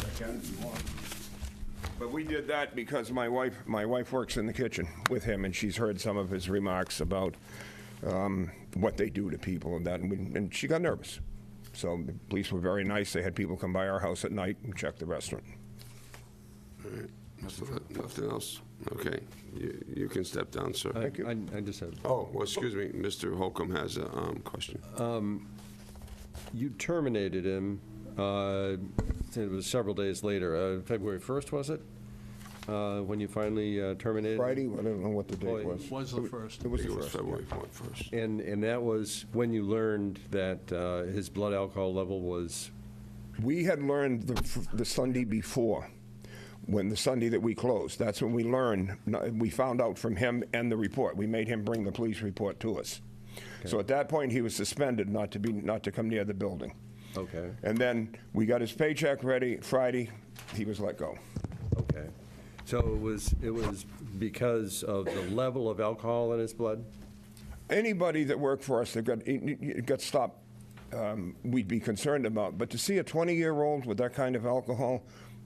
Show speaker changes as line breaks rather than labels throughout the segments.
if you want. But we did that because my wife, my wife works in the kitchen with him, and she's heard some of his remarks about um, what they do to people and that, and, we, and she got nervous. So the police were very nice. They had people come by our house at night and check the restaurant.
Nothing else? Okay, you you can step down, sir.
you.
I I just have,
Oh, well, excuse me, Mr. Holcomb has a um, question.
Uh,
you terminated him, uh, it was several days later, uh, February 1st, was it? Uh, When you finally uh, terminated? him?
Friday, I don't know what the date
Boy,
was.
Was the first.
It was
It
the
was
first.
February 1st.
And, and that was when you learned that uh, his blood alcohol level was,
We had learned the, the Sunday before, when the Sunday that we closed. That's when we learned, we found out from him and the report. We made him bring the police report to us. So at that point, he was suspended not to be, not to come near the building.
okay,
And then we got his paycheck ready Friday. He was let go.
okay. So it was, it was because of the level of alcohol in his blood?
Anybody that worked for us that got got stopped, um, we'd be concerned about. But to see a 20-year-old with that kind of alcohol,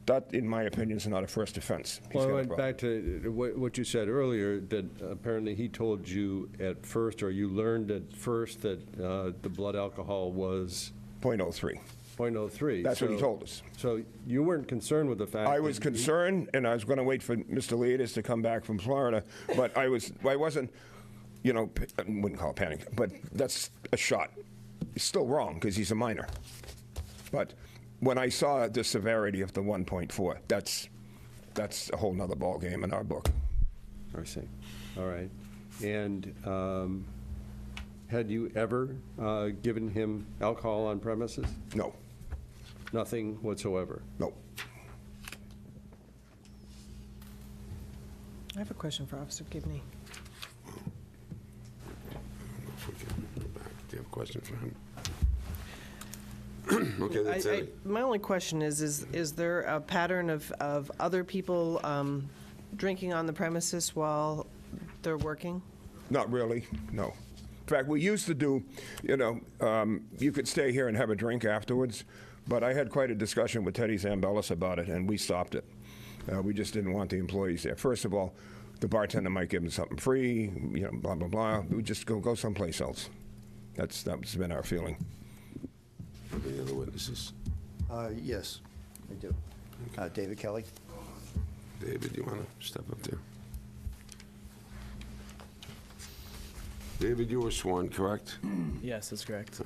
that, in my opinion, is not a first offense. He's
Well, I
got a
went
problem.
back to uh, what, what you said earlier, that apparently he told you at first, or you learned at first that uh, the blood alcohol was
.03.
.03.
That's what he
so-
told us.
So you weren't concerned with the fact?
I
that
was
he-
concerned, and I was going to wait for Mr. Leaders to come back from Florida, but I was, I wasn't, you know, p- I wouldn't call it panic, but that's a shot. It's still wrong because he's a minor. But when I saw the severity of the 1.4, that's that's a whole nother ballgame in our book.
I see, all right. And um, had you ever uh, given him alcohol on premises?
No,
Nothing whatsoever?
no.
I have a question for Officer Gibney.
If we can go back. Do you have a question for him? Okay,
I-
that's
I-
it.
My only question is, is, is there a pattern of, of other people um, drinking on the premises while they're working?
Not really, no. In fact, we used to do, you know, um, you could stay here and have a drink afterwards, but I had quite a discussion with Teddy Zambellis about it, and we stopped it. Uh, we just didn't want the employees there. First of all, the bartender might give them something free, you know, blah, blah, blah. We just go, go someplace else. That's, that's been our feeling.
Any other witnesses?
Uh, Yes, I do. Uh, David Kelly?
David, you want to step up there? David, you were sworn, correct?
Mm-hmm.
Yes, that's correct.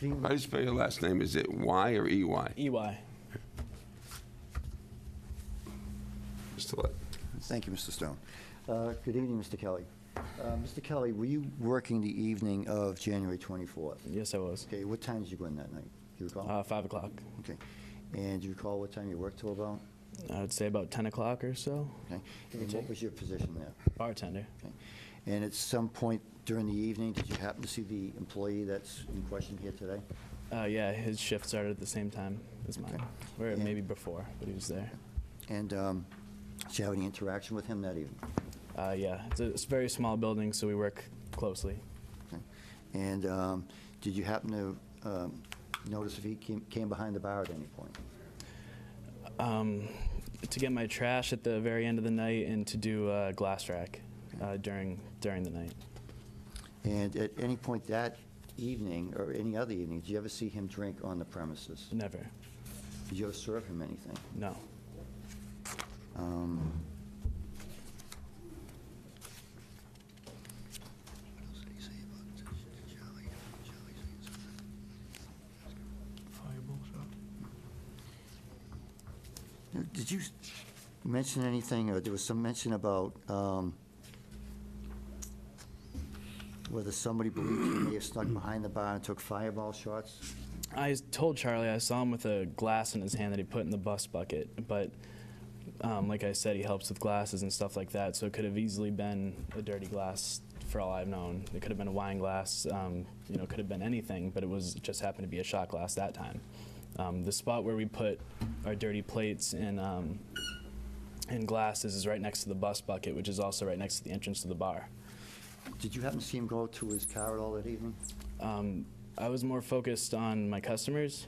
How do you spell your last name? Is it Y or
E.
EY?
EY.
Mr. Lett?
Thank you, Mr. Stone. Uh, Good evening, Mr. Kelly. Uh, Mr. Kelly, were you working the evening of January 24th?
Yes, I was.
Okay, what time did you go in that night? Do you recall?
Uh, five o'clock.
Okay. And do you recall what time you worked till about?
I would say about 10 o'clock or so.
Okay. And what was your position there?
Bartender.
Okay. And at some point during the evening, did you happen to see the employee that's in question here today?
Uh, yeah, his shift started at the same time as mine, or
Yeah.
maybe before, but he was there.
And um, did you have any interaction with him that evening?
Uh, yeah, it's a, it's a very small building, so we work closely.
Okay. And um, did you happen to um, notice if he came came behind the bar at any point?
Um, to get my trash at the very end of the night and to do uh, glass rack uh, during during the night.
And at any point that evening, or any other evening, did you ever see him drink on the premises?
Never.
Did you ever serve him anything?
No.
Um, Now, Did you s- mention anything, or there was some mention about um, whether somebody believed he may have snuck behind the bar and took fireball shots?
I s- told Charlie I saw him with a glass in his hand that he put in the bus bucket, but um, like I said, he helps with glasses and stuff like that, so it could have easily been a dirty glass for all I've known. It could have been a wine glass, um, you know, could have been anything, but it was it just happened to be a shot glass that time. Um, the spot where we put our dirty plates and um, and glasses is right next to the bus bucket, which is also right next to the entrance to the bar.
Did you happen to see him go to his car at all that evening?
Um, I was more focused on my customers